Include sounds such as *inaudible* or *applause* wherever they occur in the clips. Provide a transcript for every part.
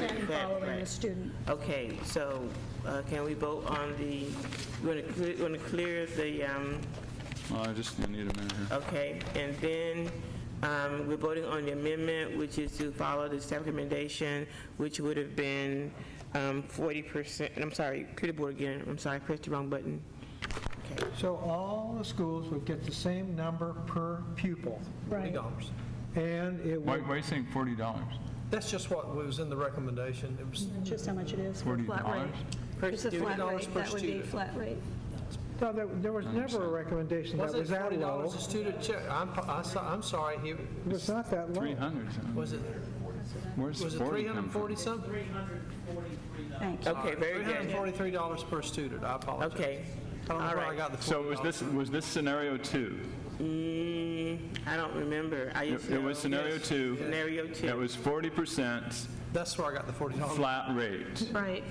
that, following the right. student. Okay, so uh, can we vote on the, we're going to clear the, um, Oh, I just I need a minute here. okay, and then um, we're voting on the amendment, which is to follow the staff recommendation, which would have been um, 40%, I'm sorry, clear the board again, I'm sorry, I pressed the wrong button. Okay, So all the schools would get the same number per pupil, Right. and it Why, would, why are you saying forty dollars? That's just what was in the recommendation. It was, Just how much it is. Forty Flat rate. dollars? It's a flat $40 rate. per That would be student. flat rate. no, there there was never a recommendation that wasn't was it that forty low. dollars a student check? I'm, I saw- I'm sorry, it, It was not that Three low. hundred. was it, Where's was it forty three hundred come and from? forty something? Thank you. Okay, very Three hundred and good. forty-three dollars per student, I apologize. Okay, I all don't know where I right. got the So was forty dollars. this, was this scenario two? Mm, I don't remember. I It just it know- was scenario Yes. two. Scenario two. It was forty percent That's where I got the forty dollars. flat rate. Right,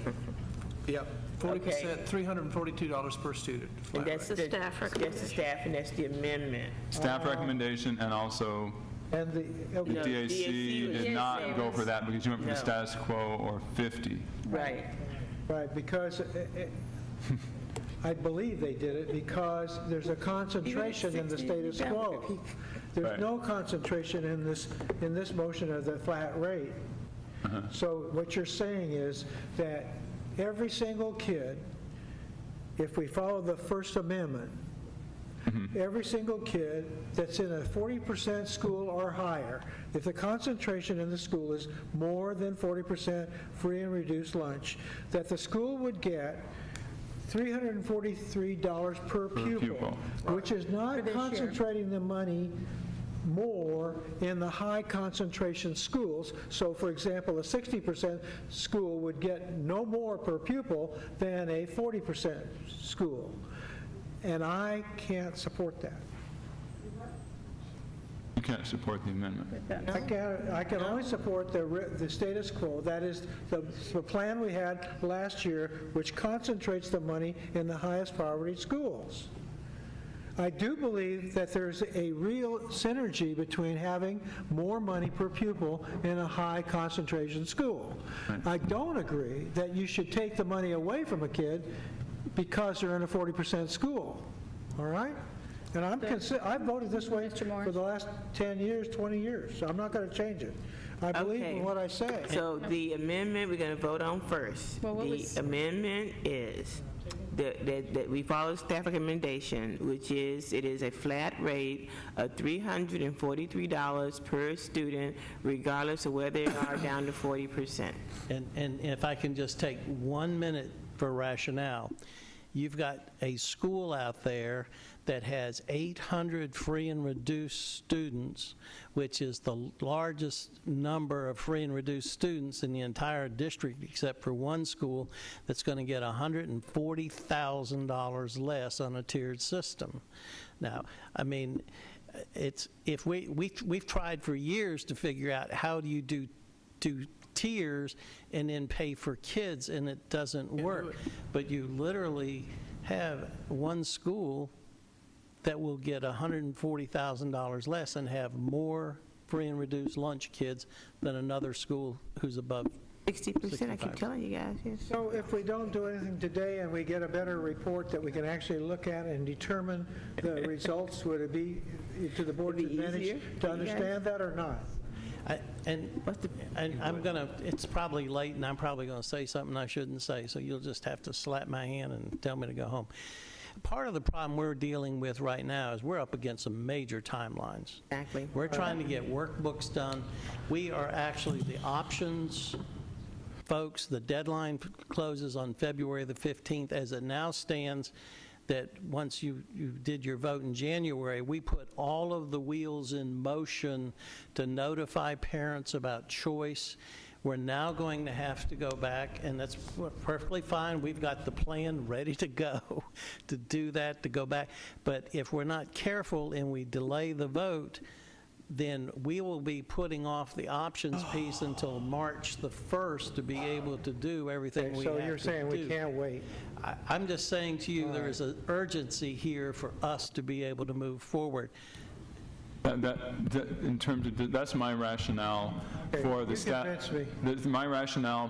Yep, forty Okay. percent, three hundred and forty-two dollars per student. And flat that's rate. the. staff That's the staff, and that's the amendment. Staff recommendation and also And the, the No, DAC DAC did was- not go for that because you went for the No. status quo or fifty. Right. Right, because it- it- I believe they did it because there's a concentration in the status quo. Right. There's no concentration in this, in this motion of the flat rate. Uh-huh. So what you're saying is that every single kid, if we follow the First Amendment, every single kid that's in a 40% school or higher, if the concentration in the school is more than 40% free and reduced lunch, that the school would get $343 per pupil. pupil, which is not concentrating the money more in the high concentration schools. So for example, a 60% school would get no more per pupil than a 40% school. And I can't support that. You can't support the amendment. I can, I can only support the, ri- the status quo, that is, the, the plan we had last year, which concentrates the money in the highest poverty schools. I do believe that there's a real synergy between having more money per pupil in a high concentration school. I don't agree that you should take the money away from a kid because they're in a 40% school, all right? And I'm, consi- I've voted this way for the last 10 years, 20 years, so I'm not going to change it. I believe Okay. in what I say. So the amendment we're going to vote on first. Well, what The was- amendment is that, that that we follow staff recommendation, which is, it is a flat rate of $343 per student regardless of whether they are down to 40%. And, and if I can just take one minute for rationale, you've got a school out there that has 800 free and reduced students, which is the largest number of free and reduced students in the entire district, except for one school that's going to get $140,000 less on a tiered system. Now, I mean, it's, if we, we, we've tried for years to figure out how do you do do tiers and then pay for kids, and it doesn't work. But you literally have one school that will get $140,000 less and have more free and reduced lunch kids than another school who's above 60%, I keep 65. telling you guys, yes. So if we don't do anything today and we get a better report that we can actually look at and determine *laughs* the results, would it be to the board's It'd be easier advantage for to you guys? understand that or not? I- And, and I'm going to, it's probably late, and I'm probably going to say something I shouldn't say, so you'll just have to slap my hand and tell me to go home. Part of the problem we're dealing with right now is we're up against some major timelines. Exactly. We're trying to get workbooks done. We are actually, the options folks, the deadline f- closes on February the 15th. As it now stands, that once you, you did your vote in January, we put all of the wheels in motion to notify parents about choice. We're now going to have to go back, and that's perfectly fine. We've got the plan ready to go, *laughs* to do that, to go back. But if we're not careful and we delay the vote, then we will be putting off the options *sighs* piece until March the 1st to be able to do everything we have So you're to saying we do. can't wait? I- I'm just saying to you, there is an urgency here for us to be able to move forward. That, that, that- in terms of, that's my rationale for you the staff. convinced me. My rationale